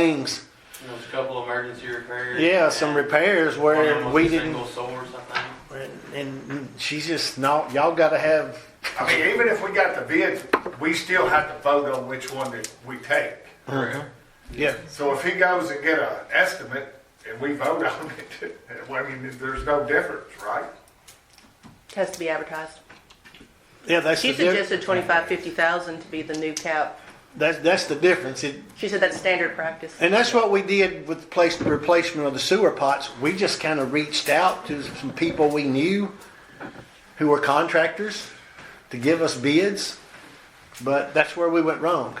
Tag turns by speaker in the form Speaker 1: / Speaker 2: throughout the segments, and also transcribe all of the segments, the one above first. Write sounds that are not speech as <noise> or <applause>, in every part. Speaker 1: things.
Speaker 2: There was a couple emergency repairs.
Speaker 1: Yeah, some repairs where
Speaker 2: One
Speaker 1: we
Speaker 2: was a
Speaker 1: didn't,
Speaker 2: Single source, I think.
Speaker 1: and she's just not, y'all gotta have,
Speaker 3: I mean, even if we got the bids, we still have to vote on which one that we take.
Speaker 1: yeah.
Speaker 3: So if he goes and get an estimate and we vote on <laughs> it, I mean, there's no difference, right?
Speaker 4: Has to be advertised.
Speaker 1: Yeah, that's the,
Speaker 4: She
Speaker 1: dif-
Speaker 4: suggested twenty-five, fifty thousand to be the new cap.
Speaker 1: that's, that's the difference. It-
Speaker 4: She said that's standard practice.
Speaker 1: And that's what we did with the place, replacement of the sewer pots. We just kind of reached out to some people we knew who were contractors to give us bids, but that's where we went wrong.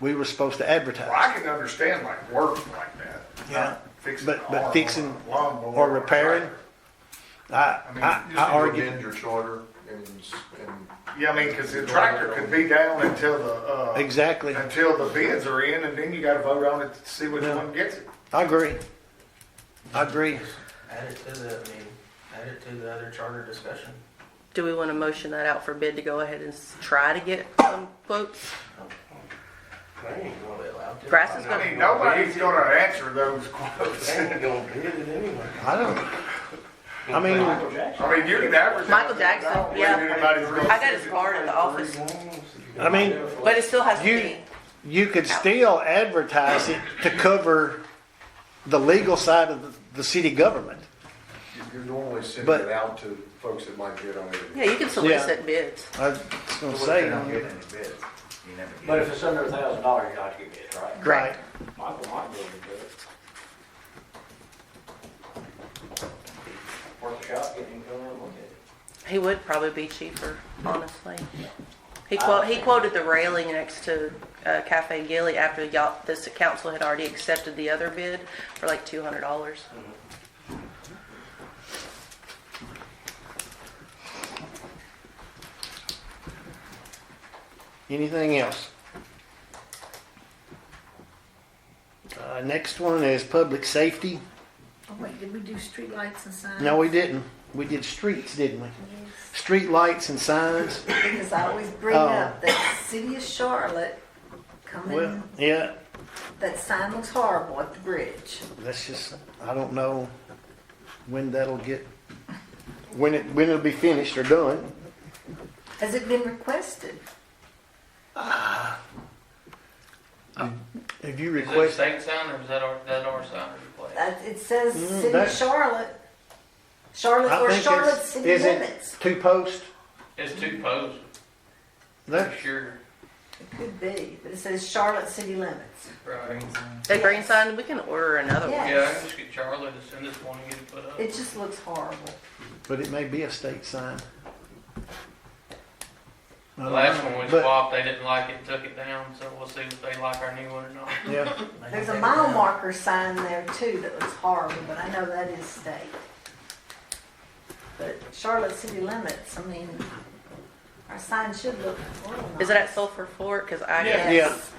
Speaker 1: We were supposed to
Speaker 3: Well,
Speaker 1: advertise.
Speaker 3: I can understand like work like that.
Speaker 1: Yeah.
Speaker 3: Fixing
Speaker 1: But- but
Speaker 3: an arm
Speaker 1: fixing
Speaker 3: on a lawnmower
Speaker 1: or repairing? I,
Speaker 3: I
Speaker 1: I,
Speaker 3: mean,
Speaker 5: You
Speaker 1: I
Speaker 5: just need to
Speaker 1: argued,
Speaker 5: amend your charter and, s- and
Speaker 3: Yeah, I mean, because the tractor could be down until the, uh,
Speaker 1: exactly.
Speaker 3: until the bids are in and then you gotta vote on it to see which one gets it.
Speaker 1: I agree. I agree.
Speaker 6: Add it to the, I mean, add it to the other charter discussion.
Speaker 4: Do we want to motion that out for bid to go ahead and s- try to get some quotes?
Speaker 6: They ain't gonna be allowed to.
Speaker 4: Grass is
Speaker 3: I
Speaker 4: gonna,
Speaker 3: mean, nobody's gonna answer those <laughs> quotes.
Speaker 6: They ain't gonna bid it anyway.
Speaker 1: I don't, I mean,
Speaker 6: Michael Jackson.
Speaker 3: I mean, you can advertise.
Speaker 4: Michael Jackson,
Speaker 3: I don't think
Speaker 4: yeah.
Speaker 3: anybody's gonna
Speaker 4: I got
Speaker 3: fix
Speaker 4: his
Speaker 3: it.
Speaker 4: card in the office,
Speaker 1: I mean,
Speaker 4: but it still has to
Speaker 1: You-
Speaker 4: be.
Speaker 1: you could still advertise it to cover the legal side of the, the city government.
Speaker 5: you- you're normally sending
Speaker 1: But-
Speaker 5: it out to folks that might bid on it.
Speaker 4: Yeah, you can solicit bids.
Speaker 1: I was gonna say,
Speaker 7: But if it's under a thousand dollars, you ought to get it, right?
Speaker 1: right,
Speaker 7: Michael might be able to do it. Worth a shot, get him to come in and look at it.
Speaker 4: He would probably be cheaper, honestly. He quote, he quoted the railing next to uh, Cafe Gilly after y'all, this council had already accepted the other bid for like two hundred dollars.
Speaker 1: anything else? Uh, next one is public safety.
Speaker 8: Oh wait, did we do streetlights and signs?
Speaker 1: No, we didn't. We did streets, didn't we?
Speaker 8: Yes.
Speaker 1: Street lights and signs.
Speaker 8: Because I always bring
Speaker 1: Oh.
Speaker 8: up that city of Charlotte
Speaker 1: Well,
Speaker 8: coming,
Speaker 1: yeah,
Speaker 8: that sign looks horrible at the bridge.
Speaker 1: that's just, I don't know when that'll get, when it, when it'll be finished or done.
Speaker 8: Has it been requested?
Speaker 1: If you
Speaker 2: Is that a
Speaker 1: request,
Speaker 2: state sign or is that our, that our sign or replace?
Speaker 8: That, Uh, it says
Speaker 1: Mm,
Speaker 8: city of
Speaker 1: that's-
Speaker 8: Charlotte. Charlotte
Speaker 1: I
Speaker 8: or
Speaker 1: think
Speaker 8: Charlotte
Speaker 1: it's,
Speaker 8: city
Speaker 1: is
Speaker 8: limits.
Speaker 1: it two post?
Speaker 2: It's two posts, for
Speaker 1: There,
Speaker 2: sure.
Speaker 8: It could be, but it says Charlotte city limits.
Speaker 2: Right.
Speaker 4: That green sign, we can order another one.
Speaker 2: Yeah, I
Speaker 8: Yes.
Speaker 2: can just get Charlie to send us one and get it put up.
Speaker 8: It just looks horrible.
Speaker 1: but it may be a state sign. I
Speaker 2: The
Speaker 1: don't
Speaker 2: last
Speaker 1: know,
Speaker 2: one we
Speaker 1: but-
Speaker 2: swapped, they didn't like it, took it down, so we'll see if they like our new one or not.
Speaker 1: Yeah.
Speaker 8: There's a mile marker sign there too that looks horrible, but I know that is state. But Charlotte city limits, I mean, our sign should look horrible.
Speaker 4: Is it at Sulphur Fork? Because I can,
Speaker 1: Yeah.
Speaker 8: Yes.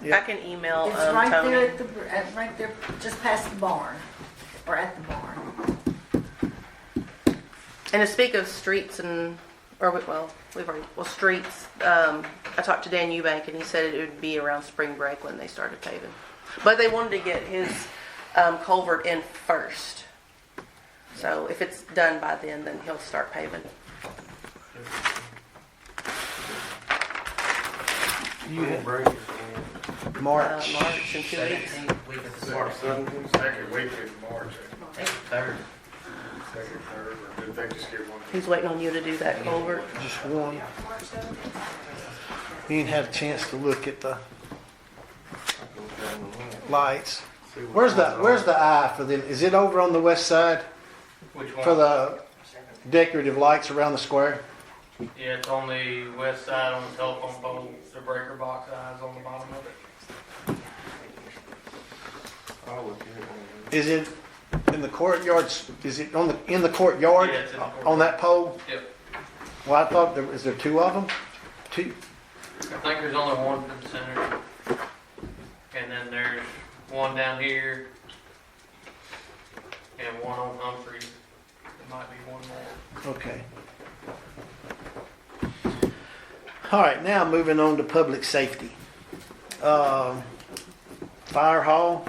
Speaker 1: Yeah.
Speaker 4: I can email
Speaker 8: It's
Speaker 4: um,
Speaker 8: right
Speaker 4: Tony.
Speaker 8: there at the, br- at, right there, just past the barn, or at the barn.
Speaker 4: And to speak of streets and, or we- well, we've already, well, streets, um, I talked to Dan Eubank and he said it would be around spring break when they started paving. But they wanted to get his, um, culvert in first. So if it's done by then, then he'll start paving.
Speaker 1: You-
Speaker 6: Break is in
Speaker 4: Uh,
Speaker 1: March.
Speaker 4: March in two weeks.
Speaker 6: Seventeenth week of the March, seventeenth,
Speaker 3: Second week in March,
Speaker 6: third.
Speaker 3: second, third, or did they just get one?
Speaker 4: He's waiting on you to do that culvert.
Speaker 1: Just one. You didn't have a chance to look at the lights. Where's the, where's the eye for them? Is it over on the west side
Speaker 2: Which
Speaker 1: for
Speaker 2: one?
Speaker 1: the decorative lights around the square?
Speaker 2: Yeah, it's on the west side on the telephone pole, the breaker box eyes on the bottom of it.
Speaker 6: I'll look at it when
Speaker 1: Is it in the courtyards? Is it on the, in the courtyard?
Speaker 2: Yeah, it's in the
Speaker 1: On that pole?
Speaker 2: Yep.
Speaker 1: Well, I thought, there is there two of them? Two?
Speaker 2: I think there's only one in the center. And then there's one down here. And one on Humphrey. There might be one more.
Speaker 1: Okay. All right, now moving on to public safety. Um, Uh, fire hall.